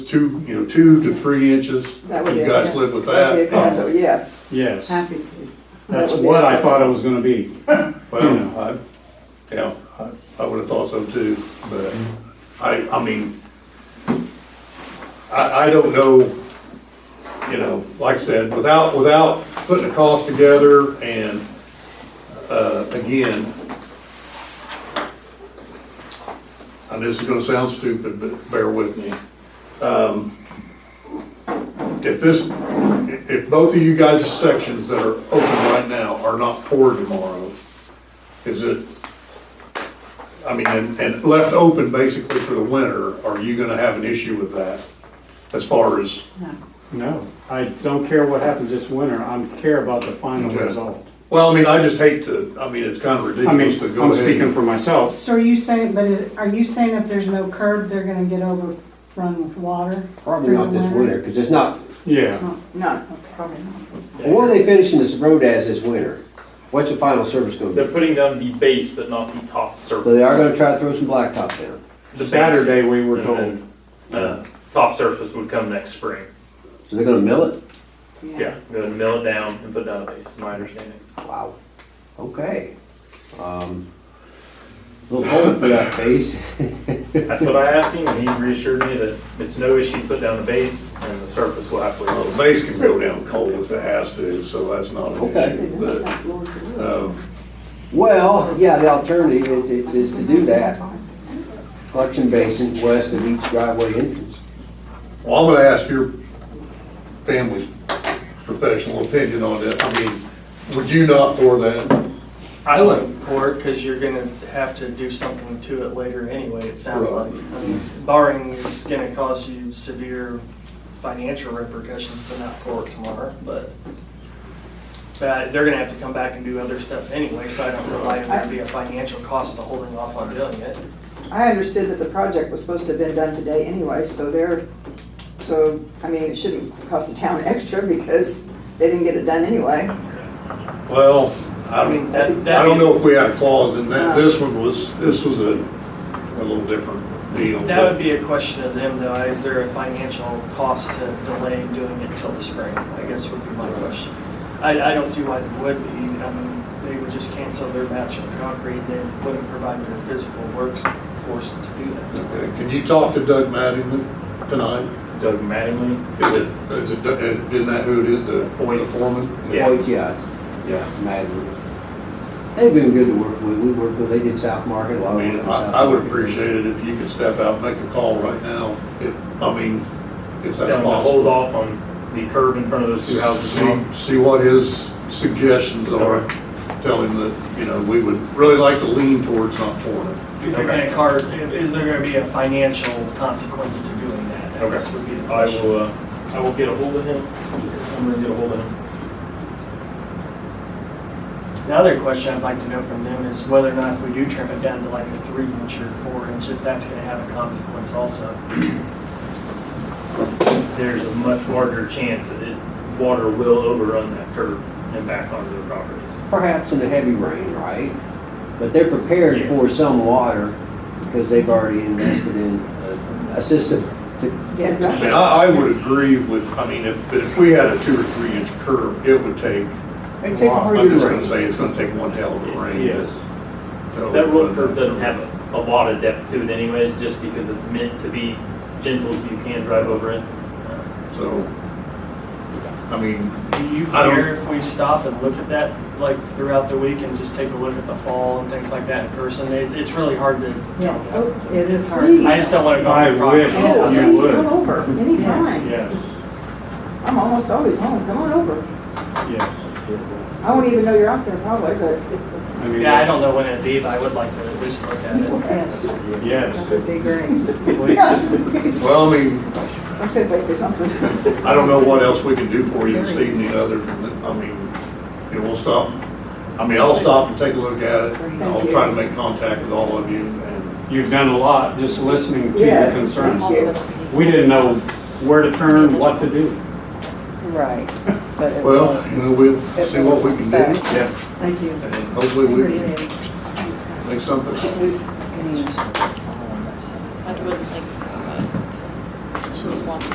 two, you know, two to three inches. That would be You a guys yes. live with That'd be a condo, that? Yes, Yes, Um, happy to. that's That would be what I awesome. thought it was gonna be. Well, I, yeah, I, I would have thought so too, but I, I mean, I, I don't know, you know, like I said, without, without putting a cost together and, uh, again, and this is gonna sound stupid, but bear with me. Um, If this, if- if both of you guys' sections that are open right now are not poured tomorrow, is it, I mean, and, and left open basically for the winter, are you gonna have an issue with that? As far as, No. No, I don't care what happens this winter, I care about the final Okay. result. well, I mean, I just hate to, I mean, it's kind of I mean, ridiculous to go I'm ahead. speaking and- for myself. So are you saying, but is- are you saying if there's no curb, they're gonna get overrun with water? Probably through not the this winter, because it's not, Yeah, no, Oh, Probably not. what are they finishing this road as this winter? What's the final service gonna They're be? putting down the base, but not the top So they surface. are gonna try to throw some blacktop down. The base Saturday is- we were and told. then, uh, Top surface would come next spring. So they're gonna mill it? Yeah, go and mill it down and put down a base, is my understanding. Wow. Okay. Um, Little hole for that base. That's what I asked him, and he reassured me that it's no issue to put down the base, and the surface will have to. Well, the base can go down cold if it has to, so that's not an Okay. issue, but, um, Well, yeah, the alternative is- is, is to do that. Collection basin west of each driveway entrance. well, I'm gonna ask your family's professional opinion on it. I mean, would you not pour that? I wouldn't pour it because you're gonna have to do something to it later anyway, it sounds Right. like. I mean, Barring it's gonna cause you severe financial repercussions to not pour it tomorrow, but but they're gonna have to come back and do other stuff anyway, so I don't know why it would be a financial cost to holding off on doing it. I understood that the project was supposed to have been done today anyway, so they're, so, I mean, it shouldn't cost the town extra because they didn't get it done anyway. Well, I I don't, mean, that, I don't that, Uh. know if we had a clause in that, this one was, this was a, a little different deal. that would be a question of them though, is there a financial cost to delay doing it till the spring? I guess would be my question. I, I don't see why they would be, I mean, they would just cancel their batch of concrete, they wouldn't provide their physical workforce to do that. Okay, uh, Can you talk to Doug Mattingly tonight? Doug Mattingly, Is it, is it, uh, isn't that who it is, the the foreman? Yeah. OTIs, yeah. Madden. They've been good to work with. We worked with, they did South Market, a lot I of work mean, in I, South I would Market. appreciate it if you could step out and make a call right now, if, I mean, if that's Tell him to hold possible. off on the curb in front of those two houses. See, see what his suggestions are, tell him that, you know, we would really like to lean towards not pouring it. Is there gonna car, is there gonna be a financial consequence to doing that? I Okay. guess would be the I question. will, uh, I will get a hold of him. I'm gonna get a hold of him. The other question I'd like to know from them is whether or not if we do trim it down to like a three inch or four inch, if that's gonna have a consequence also. There's a much larger chance that it, water will overrun that curb and back onto their properties. perhaps in a heavy rain, right? But they're prepared Yeah. for some water because they've already invested in a, a system to, Yeah, I mean, I, I would agree with, I mean, if, if we had a two or three inch curb, it would take, they take a I'm pretty just good gonna rain. say, it's gonna take one hell of a rain. Yes. That road curb doesn't have a, a lot of depth to it anyways, just because it's meant to be gentle so you can drive over it. Uh, So, I mean, Do you I don't- care if we stop and look at that, like throughout the week and just take a look at the fall and things like that in person? It's, it's really hard to tell. Yes, it is hard. Please. I just don't wanna go I off the property. wish. Oh, You please would. come over anytime. Yes, I'm almost always home. Come on over. yes. I won't even know you're out there probably, but I mean, Yeah, I don't know when it'd be, but I would like to at least look at it. yes, Yes. That would be great. well, I mean, I could wait for something. I don't know what else we can do for you this evening other than, that. I mean, you know, we'll stop. I mean, I'll stop and take a look at it. and I'll try to make contact with all of you and, You've done a lot, just listening to your Yes, concerns. thank you. We didn't know where to turn, what to do. Right. but it well, you know, we'll see what we can do. Yeah. Thank you. And hopefully we can make something. won't.